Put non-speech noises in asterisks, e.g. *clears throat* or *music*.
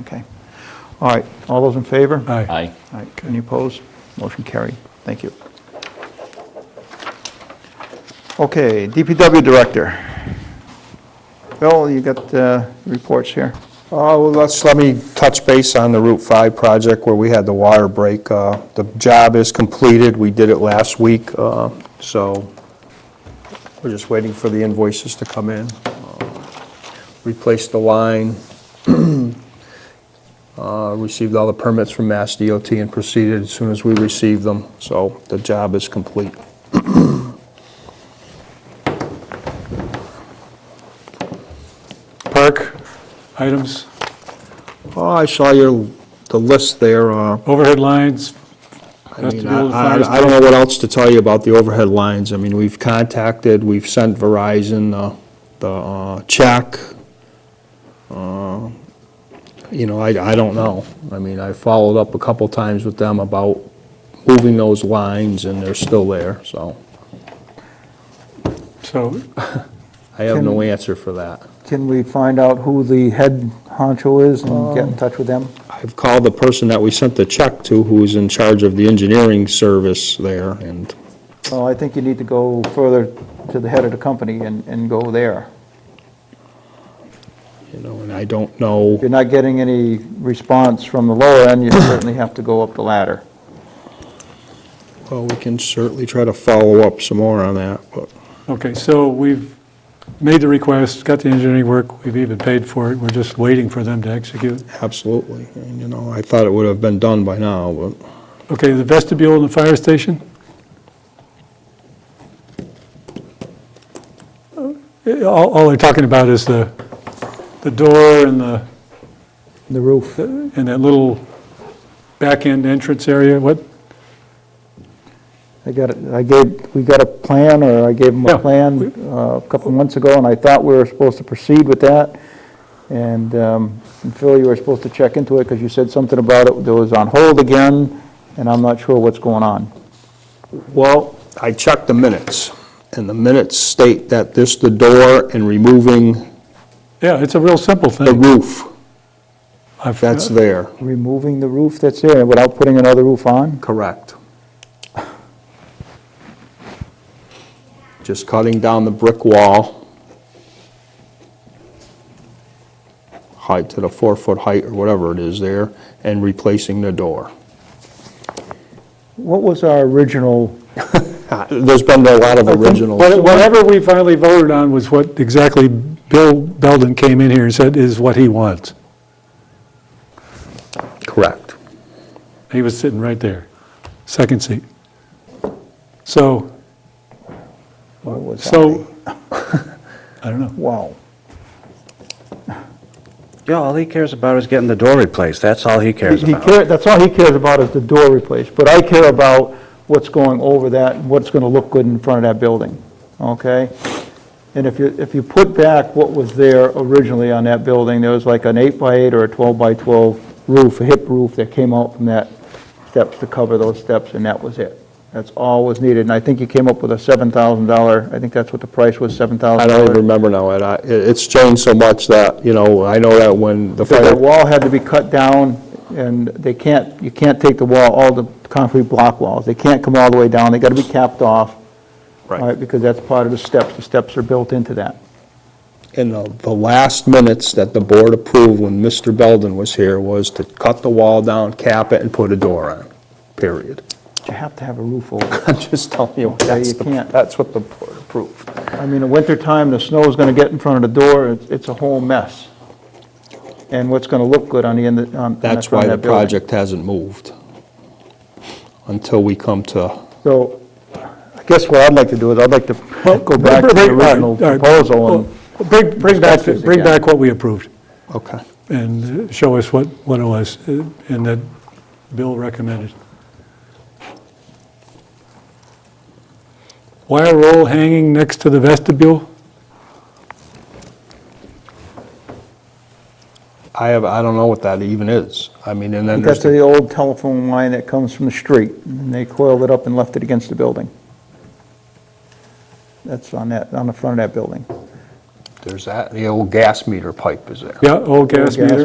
Okay. All right, all those in favor? Aye. Aye. All right, any opposed? Motion carried. Thank you. Okay, DPW Director. Bill, you got uh, reports here? Uh, Well, let's, let me touch base on the Route 5 project where we had the water break. Uh, The job is completed, we did it last week, uh, so we're just waiting for the invoices to come in. Uh, Replaced the line, *clears throat* uh, received all the permits from Mass DOT and proceeded as soon as we received them, so the job is complete. Park? Items, Oh, I saw your, the list there. uh, overhead lines, I Has to mean, do with I fire I- I don't know what else to tell you about the overhead lines. I mean, we've contacted, we've sent Verizon uh, the uh, check. Uh, You know, I, I don't know. I mean, I followed up a couple times with them about moving those lines, and they're still there, so so, I have no answer for that. Can we find out who the head honcho is and Um, get in touch with them? I've called the person that we sent the check to, who's in charge of the engineering service there, and Well, I think you need to go further to the head of the company and, and go there. You know, and I don't know, If you're not getting any response from the lower end, you certainly have to go up the ladder. well, we can certainly try to follow up some more on that, but okay, so we've made the request, got the engineering work, we've even paid for it, we're just waiting for them to execute. absolutely. And, you know, I thought it would have been done by now, but Okay, the vestibule and the fire station? Uh, All, all they're talking about is the, the door and the, The roof. and that little back-end entrance area, what? I got, it- I gave, we got a plan, or I gave them Yeah, a plan uh, a couple months ago, and I thought we were supposed to proceed with that. And um, and Phil, you were supposed to check into it, because you said something about it, that was on hold again, and I'm not sure what's going on. Well, I checked the minutes, and the minutes state that this, the door and removing Yeah, it's a real simple the thing. roof, I've- that's there, Removing the roof that's there without putting another roof on? correct. Just cutting down the brick wall height to the four-foot height or whatever it is there, and replacing the door. What was our original, Uh, There's been a lot of originals. What- Whatever we finally voted on was what exactly Bill Belden came in here and said is what he wants. Correct. He was sitting right there, second seat. So, what was that? so, *laughs* I don't know. Wow. Yeah, all he cares about is getting the door replaced. That's all he cares He about. care, that's all he cares about is the door replaced, but I care about what's going over that, and what's gonna look good in front of that building, okay? And if you, if you put back what was there originally on that building, there was like an eight by eight or a twelve by twelve roof, a hip roof that came out from that steps to cover those steps, and that was it. That's all was needed, and I think you came up with a seven thousand dollar, I think that's what the price was, seven I thousand don't even dollars. remember now, and I, it- it's changed so much that, you know, I know that when the Because that fire, wall had to be cut down, and they can't, you can't take the wall, all the concrete block walls, they can't come all the way down, they gotta be capped off. Right. all Because that's part of the steps, the steps are built into that. in the, the last minutes that the board approved when Mr. Belden was here was to cut the wall down, cap it, and put a door on, period. But You have to have a roof over it. *laughs* I'm just telling you, that's you the, can't. that's what the board approved. I mean, in wintertime, the snow's gonna get in front of the door, it's, it's a whole mess. And what's gonna look good on the end, of- on on the That's front why of that the building. project hasn't moved, until we come to, So, I guess what I'd like to do is, I'd like to go back to the Bring- bring- original all right, all right. proposal and Well, Bring, bring back, discuss this bring again. back what we approved okay. and uh, show us what, what it was uh, and that Bill recommended. Wire roll hanging next to the vestibule? I have, I don't know what that even is. I mean, and then there's That's the the old telephone line that comes from the street, and they coiled it up and left it against the building. That's on that, on the front of that building. There's that, the old gas meter pipe is there. Yeah, old gas gas meter?